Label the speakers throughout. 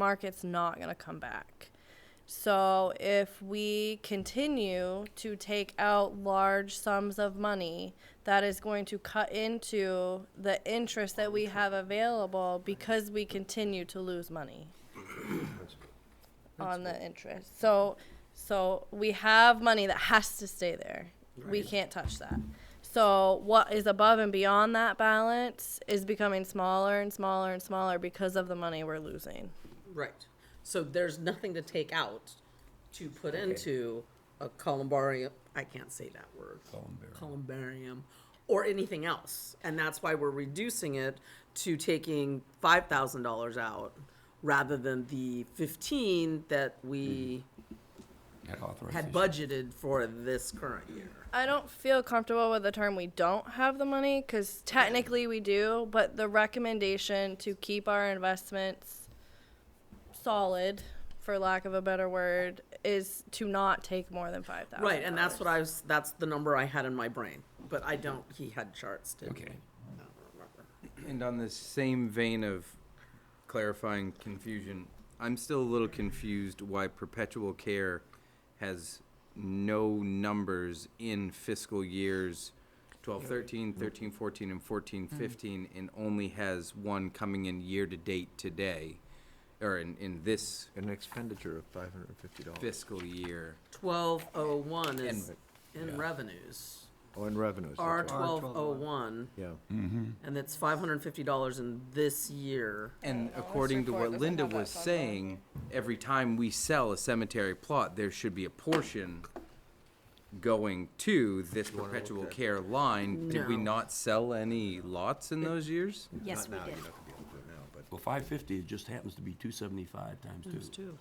Speaker 1: market's not going to come back. So if we continue to take out large sums of money, that is going to cut into the interest that we have available because we continue to lose money on the interest. So, so we have money that has to stay there. We can't touch that. So what is above and beyond that balance is becoming smaller and smaller and smaller because of the money we're losing.
Speaker 2: Right. So there's nothing to take out to put into a columbarium. I can't say that word. Columbarium. or anything else. And that's why we're reducing it to taking five thousand dollars out rather than the fifteen that we
Speaker 3: Had
Speaker 2: had
Speaker 3: authorization.
Speaker 2: budgeted for this current year.
Speaker 1: I don't feel comfortable with the term we don't have the money because technically we do, but the recommendation to keep our investments solid, for lack of a better word, is to not take more than five thousand.
Speaker 2: Right, and that's what I was that's the number I had in my brain. But I don't he had charts, didn't
Speaker 3: Okay.
Speaker 2: he? I don't remember.
Speaker 4: And on the same vein of clarifying confusion, I'm still a little confused why perpetual care has no numbers in fiscal years 12, 13, 13, 14, and 14, 15, and only has one coming in year to date today, or in, in this
Speaker 5: An expenditure of five hundred and fifty dollars.
Speaker 4: fiscal year.
Speaker 2: Twelve oh one is
Speaker 4: And-
Speaker 2: in revenues.
Speaker 5: Or Oh, in revenues. that's
Speaker 2: R
Speaker 5: right.
Speaker 2: twelve oh one,
Speaker 5: Yeah.
Speaker 6: Hmm.
Speaker 2: and it's five hundred and fifty dollars in this year.
Speaker 4: And according to
Speaker 1: report
Speaker 4: what
Speaker 1: doesn't
Speaker 4: Linda
Speaker 1: have that
Speaker 4: was
Speaker 1: fund
Speaker 4: saying, every time we sell a cemetery plot, there should be a portion going to this perpetual care line. Did we
Speaker 2: No.
Speaker 4: not sell any lots in those years?
Speaker 7: Yes, we
Speaker 5: Now,
Speaker 7: did.
Speaker 5: you're not gonna be able to do it now, but-
Speaker 3: Well, five fifty, it just happens to be two seventy-five times two.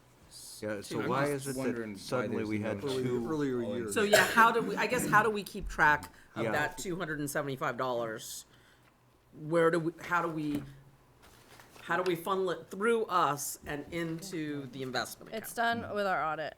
Speaker 5: Yeah, so
Speaker 4: I'm
Speaker 5: why
Speaker 4: just
Speaker 5: is it
Speaker 4: wondering why
Speaker 5: that suddenly
Speaker 4: there's
Speaker 5: we
Speaker 4: no
Speaker 5: had
Speaker 4: change.
Speaker 5: two? Earlier years.
Speaker 2: So yeah, how do we, I guess, how do we keep track of
Speaker 5: Yeah.
Speaker 2: that two hundred and seventy-five dollars? Where do we, how do we, how do we funnel it through us and into the investment
Speaker 1: It's
Speaker 2: account?
Speaker 1: done with our audit.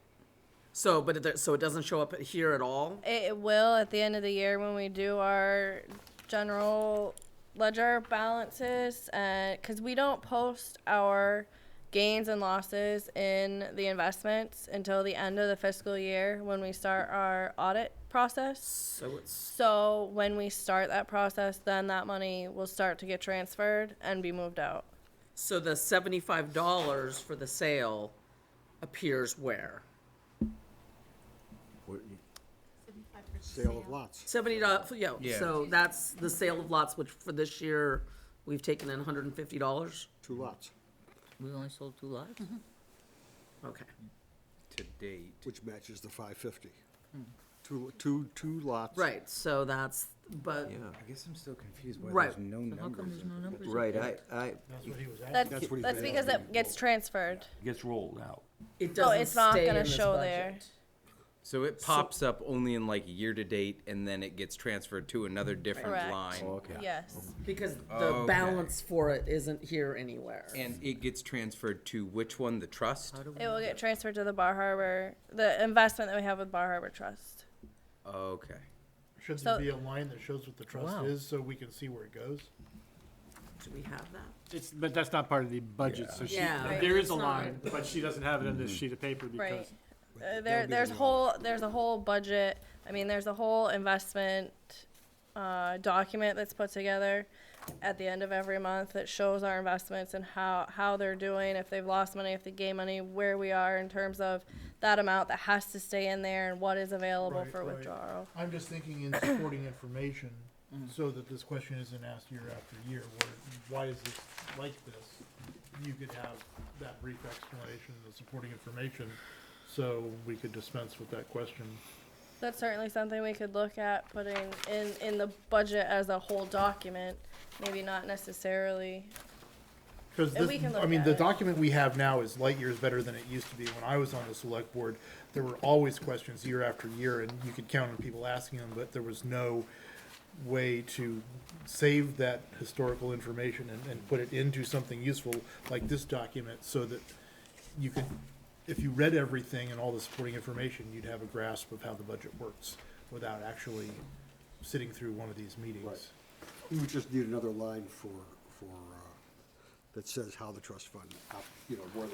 Speaker 2: So, but it, do- so it doesn't show up here at all?
Speaker 1: It it will at the end of the year when we do our general ledger balances, and because we don't post our gains and losses in the investments until the end of the fiscal year when we start our audit process.
Speaker 2: So it's,
Speaker 1: So when we start that process, then that money will start to get transferred and be moved out.
Speaker 2: so the seventy-five dollars for the sale appears where?
Speaker 5: Where you-
Speaker 8: Sale of lots.
Speaker 2: Seventy dollars, yeah,
Speaker 4: Yeah.
Speaker 2: so that's the sale of lots, which for this year, we've taken in hundred and fifty dollars?
Speaker 8: Two lots,
Speaker 6: We only sold two lots?
Speaker 2: Okay.
Speaker 4: To date.
Speaker 8: which matches the five fifty. Two, two, two lots.
Speaker 2: Right, so that's, but,
Speaker 5: Yeah,
Speaker 4: I guess I'm still confused why
Speaker 2: Right.
Speaker 4: there's no
Speaker 6: How come
Speaker 4: numbers.
Speaker 6: there's no numbers?
Speaker 5: right, I, I,
Speaker 1: That's,
Speaker 8: That's what he
Speaker 1: that's
Speaker 8: said.
Speaker 1: because it gets transferred.
Speaker 3: Gets rolled out.
Speaker 2: it
Speaker 1: So
Speaker 2: doesn't
Speaker 1: Oh, it's not
Speaker 2: stay in
Speaker 1: gonna
Speaker 2: this
Speaker 1: show
Speaker 2: budget.
Speaker 1: there.
Speaker 4: So it pops up only in like year to date and then it gets transferred to another different
Speaker 1: Correct. Oh,
Speaker 4: line.
Speaker 5: okay.
Speaker 1: Yes.
Speaker 2: Because the
Speaker 4: Oh, Okay.
Speaker 2: balance for it isn't here anywhere.
Speaker 4: And it gets transferred to which one? The trust?
Speaker 1: It will get transferred to the Bar Harbor, the investment that we have with Bar Harbor Trust.
Speaker 4: Okay.
Speaker 9: Should
Speaker 1: So-
Speaker 9: there be a line that shows what the trust
Speaker 6: Wow.
Speaker 9: is, so we can see where it goes?
Speaker 2: Do we have that?
Speaker 10: It's, but that's not part of the budget, so she,
Speaker 2: Yeah. Right,
Speaker 10: there
Speaker 2: it's
Speaker 10: is a
Speaker 2: not.
Speaker 10: line, but she doesn't have it in this sheet of paper
Speaker 1: Right.
Speaker 10: because
Speaker 1: Uh, there, there's whole, there's a whole budget, I mean, there's a whole investment, uh, document that's put together at the end of every month that shows our investments and how, how they're doing, if they've lost money, if they gain money, where we are in terms of that amount that has to stay in there and what is available
Speaker 9: Right,
Speaker 1: for
Speaker 9: right.
Speaker 1: withdrawal.
Speaker 9: I'm just thinking in supporting information,
Speaker 10: Mm.
Speaker 9: so that this question isn't asked year after year, where, why is this like this? You could have that brief explanation, the supporting information, so we could dispense with that question.
Speaker 1: That's certainly something we could look at putting in, in the budget as a whole document, maybe not necessarily
Speaker 9: Because
Speaker 1: And we
Speaker 9: this,
Speaker 1: can
Speaker 9: I
Speaker 1: look
Speaker 9: mean,
Speaker 1: at
Speaker 9: the
Speaker 1: it.
Speaker 9: document we have now is light years better than it used to be when I was on the select board. There were always questions year after year and you could count on people asking them, but there was no way to save that historical information and, and put it into something useful like this document so that you could, if you read everything and all the supporting information, you'd have a grasp of how the budget works without actually sitting through one of these meetings.
Speaker 8: We would just need another line for, for, uh, that says how the trust fund, op- you know, where the